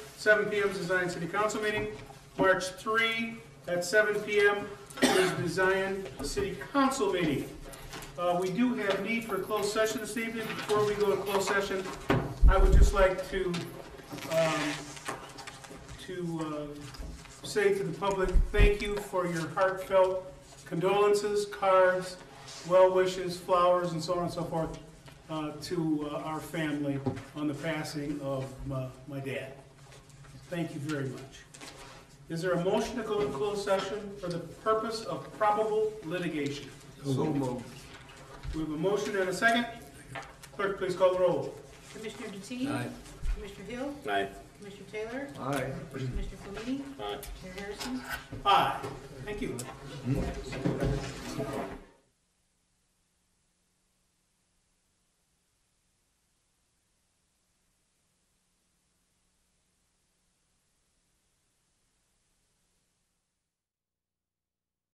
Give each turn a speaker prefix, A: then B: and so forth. A: 7 PM is the Zion City Council meeting. March 3 at 7 PM is the Zion City Council meeting. Uh, We do have need for a closed session this evening. Before we go to closed session, I would just like to, um, to uh, say to the public, thank you for your heartfelt condolences, cards, well wishes, flowers, and so on and so forth uh, to uh, our family on the passing of my- my dad. Thank you very much. Is there a motion to go into closed session for the purpose of probable litigation?
B: So moved.
A: We have a motion and a second. Clerk, please call the roll.
C: Commissioner Deteen? Commissioner Hill?
D: Aye.
C: Commissioner Taylor?
B: Aye.
C: Commissioner Flamini?
D: Aye.
C: Chair Harrison?
A: Aye. Thank you.